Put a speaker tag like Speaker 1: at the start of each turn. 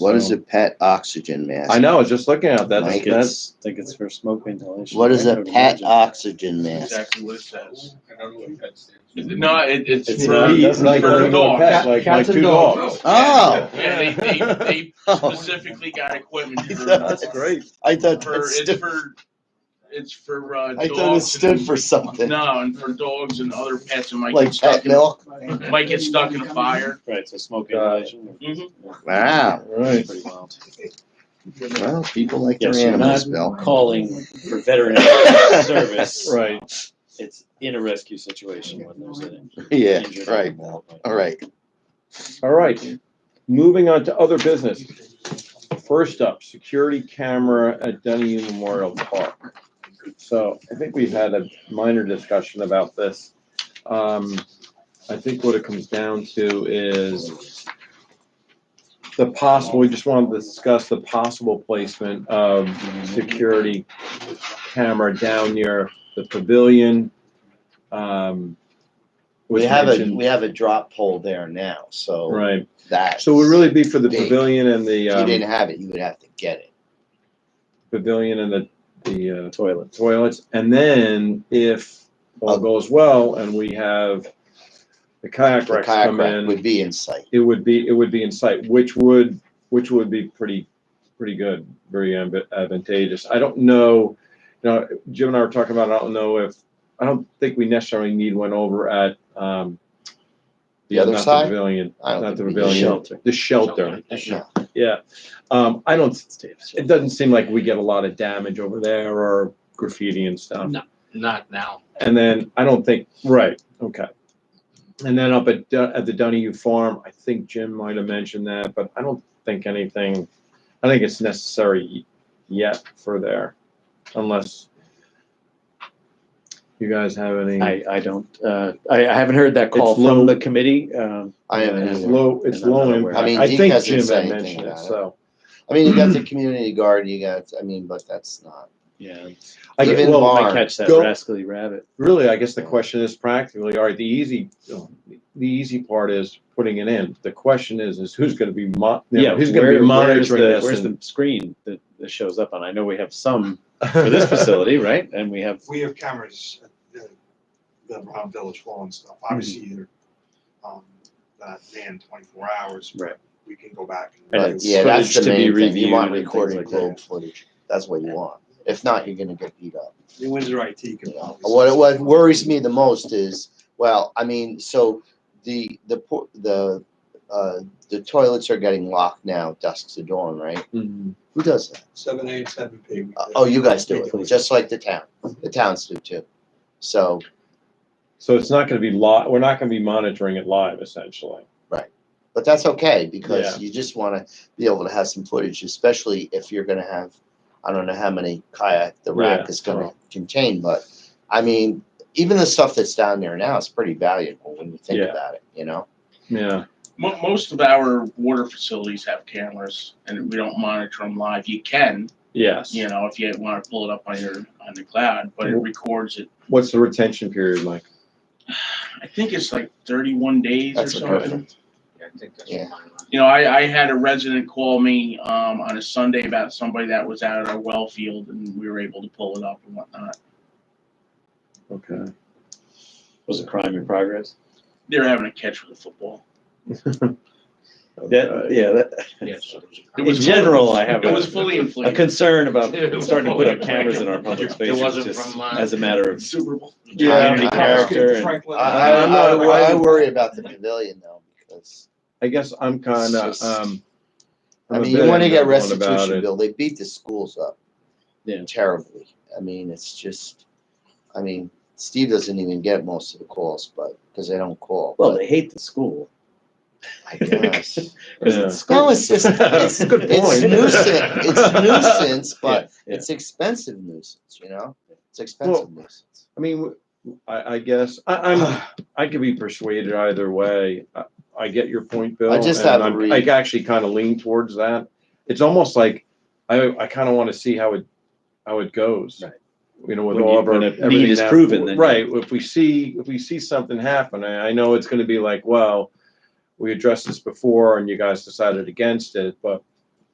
Speaker 1: What is
Speaker 2: So-
Speaker 1: a PET oxygen mask?
Speaker 2: I know, I was just looking at that,
Speaker 1: Mike,
Speaker 2: that's,
Speaker 1: it's-
Speaker 2: that's,
Speaker 3: think it's for smoke ventilation.
Speaker 1: What is
Speaker 3: I
Speaker 1: a PET
Speaker 3: would
Speaker 1: uh,
Speaker 3: imagine.
Speaker 1: oxygen mask?
Speaker 4: Exactly what it says.
Speaker 5: I don't know what that stands for.
Speaker 4: No, it, it's.
Speaker 2: it's
Speaker 4: for-
Speaker 2: a lead,
Speaker 3: doesn't
Speaker 2: like,
Speaker 4: for
Speaker 2: like,
Speaker 4: the
Speaker 2: a
Speaker 4: dog.
Speaker 2: pet, like, like
Speaker 3: Cats and
Speaker 2: two
Speaker 3: dogs.
Speaker 2: dogs.
Speaker 1: Oh.
Speaker 4: Yeah, they, they, they
Speaker 1: Oh,
Speaker 4: specifically got equipment for,
Speaker 1: That's
Speaker 2: great.
Speaker 1: I thought
Speaker 4: for,
Speaker 1: that
Speaker 4: it's
Speaker 1: stood,
Speaker 4: for, it's for, uh, dogs.
Speaker 1: I thought it stood
Speaker 4: and-
Speaker 1: for something,
Speaker 4: No, and for dogs and other pets, it might get
Speaker 1: like
Speaker 4: stuck
Speaker 1: pet
Speaker 4: in,
Speaker 1: milk.
Speaker 4: might get stuck in a fire.
Speaker 3: Right, so smoke
Speaker 2: Got it.
Speaker 3: ventilation.
Speaker 4: Mhm.
Speaker 1: Wow.
Speaker 2: Right.
Speaker 3: Pretty wild.
Speaker 1: Well, people like their
Speaker 3: Yes, you're
Speaker 1: animals,
Speaker 3: not-
Speaker 1: Bill.
Speaker 3: Calling for veteran service.
Speaker 2: Right.
Speaker 3: It's in a rescue situation when there's an
Speaker 1: Yeah,
Speaker 3: injured
Speaker 1: right.
Speaker 3: animal.
Speaker 1: All right.
Speaker 2: All right, moving on to other business. First up, security camera at Dunedin Memorial Park. So I think we've had a minor discussion about this. Um, I think what it comes down to is the possible, we just wanted to discuss the possible placement of security camera down near the pavilion. Um,
Speaker 1: We
Speaker 2: was
Speaker 1: have a,
Speaker 2: mentioned-
Speaker 1: we have a drop pole there now, so
Speaker 2: Right.
Speaker 1: that.
Speaker 2: So it would really be for the
Speaker 1: Big.
Speaker 2: pavilion and the,
Speaker 1: If you
Speaker 2: um,
Speaker 1: didn't have it, you would have to get it.
Speaker 2: pavilion and the, the, uh,
Speaker 3: Toilet.
Speaker 2: toilets. And then if all
Speaker 1: Oh.
Speaker 2: goes well and we have the kayak
Speaker 1: The
Speaker 2: racks come
Speaker 1: kayak rack
Speaker 2: in,
Speaker 1: would be in sight.
Speaker 2: it would be, it would be in sight, which would, which would be pretty, pretty good, very amb- advantageous. I don't know, you know, Jim and I were talking about, it, I don't know if, I don't think we necessarily need one over at, um,
Speaker 1: The other
Speaker 2: not
Speaker 1: side?
Speaker 2: Pavilion,
Speaker 1: I don't
Speaker 2: not the
Speaker 1: think we need
Speaker 2: pavilion,
Speaker 3: shelter.
Speaker 2: the shelter.
Speaker 1: No.
Speaker 2: Yeah, um, I don't, it doesn't seem like we get a lot of damage over there or graffiti and stuff.
Speaker 4: No. Not now.
Speaker 2: And then I don't think, right, okay. And then up at, Dun- at the Donahue Farm, I think Jim might have mentioned that, but I don't think anything, I think it's necessary yet for there, unless you guys have any.
Speaker 3: I, I don't, uh, I, I haven't heard that call
Speaker 2: It's low.
Speaker 3: from the committee. Um,
Speaker 1: I haven't
Speaker 2: It's
Speaker 1: either.
Speaker 2: low, it's
Speaker 3: And I'm not
Speaker 2: low
Speaker 3: aware.
Speaker 2: impact.
Speaker 1: I mean,
Speaker 2: I
Speaker 1: Deke
Speaker 2: think
Speaker 1: hasn't
Speaker 2: Jim
Speaker 1: said
Speaker 2: had
Speaker 1: anything
Speaker 2: mentioned it,
Speaker 1: about it.
Speaker 2: so.
Speaker 1: I mean, you got the community garden, you got, I mean, but that's not,
Speaker 3: yeah,
Speaker 2: I
Speaker 1: Live
Speaker 2: get,
Speaker 1: in
Speaker 2: well,
Speaker 1: Bar.
Speaker 3: I catch that
Speaker 2: Go-
Speaker 3: rascally rabbit.
Speaker 2: really, I guess the question is practically, all right, the easy, the easy part is putting it in. The question is, is who's gonna be mo- you know, who's gonna
Speaker 3: where-
Speaker 2: be
Speaker 3: where's
Speaker 2: monitoring
Speaker 3: the-
Speaker 2: this?
Speaker 3: Where's
Speaker 2: and-
Speaker 3: the screen that, that shows up on? I know we have some for this facility, right? And we have,
Speaker 5: We have cameras at the, the Round Village Hall and stuff, obviously
Speaker 1: Mm-hmm.
Speaker 5: they're, um, not manned twenty-four hours.
Speaker 3: Right.
Speaker 5: We can go back
Speaker 3: And
Speaker 5: and.
Speaker 1: but
Speaker 3: it's
Speaker 1: yeah, that's
Speaker 3: footage
Speaker 1: the main
Speaker 3: to be
Speaker 1: thing. You
Speaker 3: reviewed
Speaker 1: want
Speaker 3: and things
Speaker 1: recorded
Speaker 3: like
Speaker 1: globe footage. That's what you want. If not, you're gonna get beat up.
Speaker 5: The Windsor IT can.
Speaker 1: you know.
Speaker 5: probably-
Speaker 1: What, what worries me the most is, well, I mean, so the, the, po- the, uh, the toilets are getting locked now dusk to dawn, right?
Speaker 2: Mhm.
Speaker 1: Who does that?
Speaker 5: Seven A and seven P.
Speaker 1: Uh, Oh, you guys do it, just like the town. The towns do too. So,
Speaker 2: So it's not gonna be li- we're not gonna be monitoring it live essentially.
Speaker 1: but that's okay because
Speaker 2: Yeah.
Speaker 1: you just want to be able to have some footage, especially if you're going to have, I don't know how many kayak the rack
Speaker 2: Yeah,
Speaker 1: is going to contain, but I mean, even the stuff that's down there now is pretty valuable when you think
Speaker 2: Yeah.
Speaker 1: about it, you know?
Speaker 2: Yeah,
Speaker 4: Mo- most of our water facilities have cameras and we don't monitor them live. You can,
Speaker 2: yes.
Speaker 4: you know, if you want to pull it up on your, on the cloud, but it
Speaker 1: Mm-hmm.
Speaker 4: records it.
Speaker 2: What's the retention period like?
Speaker 4: I think it's like thirty-one days or
Speaker 1: That's
Speaker 4: something.
Speaker 1: perfect.
Speaker 5: Yeah, I think that's
Speaker 1: Yeah.
Speaker 5: fine.
Speaker 4: You know, I, I had a resident call me, um, on a Sunday about somebody that was out at our well field and we were able to pull it up and whatnot.
Speaker 2: Okay.
Speaker 3: was a crime in progress.
Speaker 4: They're having a catch with a football.
Speaker 3: That,
Speaker 2: Okay.
Speaker 3: yeah, that-
Speaker 4: Yes. It
Speaker 3: in
Speaker 4: was
Speaker 3: general, I have
Speaker 4: It was
Speaker 3: a,
Speaker 4: fully
Speaker 3: a
Speaker 4: inflated.
Speaker 3: concern about
Speaker 4: It was
Speaker 3: starting to put up
Speaker 4: fully
Speaker 3: cameras in our public
Speaker 4: inflated. It
Speaker 3: spaces,
Speaker 4: wasn't
Speaker 3: just
Speaker 4: from, uh,
Speaker 3: as a matter of
Speaker 4: Super Bowl.
Speaker 3: community
Speaker 1: I- I-
Speaker 3: character. and-
Speaker 5: Franklin.
Speaker 1: I, I,
Speaker 2: I'm not-
Speaker 1: I- I worry about the pavilion though, because,
Speaker 2: I guess I'm kinda, um.
Speaker 1: I
Speaker 2: I'm a
Speaker 1: mean, you
Speaker 2: bit
Speaker 1: want to get
Speaker 2: ambivalent about
Speaker 1: restitution
Speaker 2: it.
Speaker 1: bill. They beat the schools up
Speaker 3: Yeah.
Speaker 1: terribly. I mean, it's just, I mean, Steve doesn't even get most of the calls, but, because they don't call.
Speaker 3: Well,
Speaker 1: but
Speaker 3: they hate the school.
Speaker 1: I guess.
Speaker 3: 'cause
Speaker 2: Yeah.
Speaker 3: it's school.
Speaker 1: No, it's just, it's,
Speaker 2: Good point.
Speaker 1: it's nuisance, it's nuisance, but
Speaker 3: yeah.
Speaker 1: it's expensive nuisance, you know? It's
Speaker 2: Well-
Speaker 1: expensive nuisance.
Speaker 2: I mean, w- I, I guess, I, I'm, I could be persuaded either way. I, I get your point, Bill.
Speaker 1: I just
Speaker 2: and
Speaker 1: have a
Speaker 2: I'm-
Speaker 1: read.
Speaker 2: I actually kind of lean towards that. It's almost like, I, I kind of want to see how it, how it goes.
Speaker 3: Right.
Speaker 2: You know, with
Speaker 3: When
Speaker 2: all
Speaker 3: you-
Speaker 2: of our.
Speaker 3: when a need
Speaker 2: everything
Speaker 3: is
Speaker 2: that-
Speaker 3: proven, then you-
Speaker 2: Right, if we see, if we see something happen, I, I know it's gonna be like, well, we addressed this before and you guys decided against it, but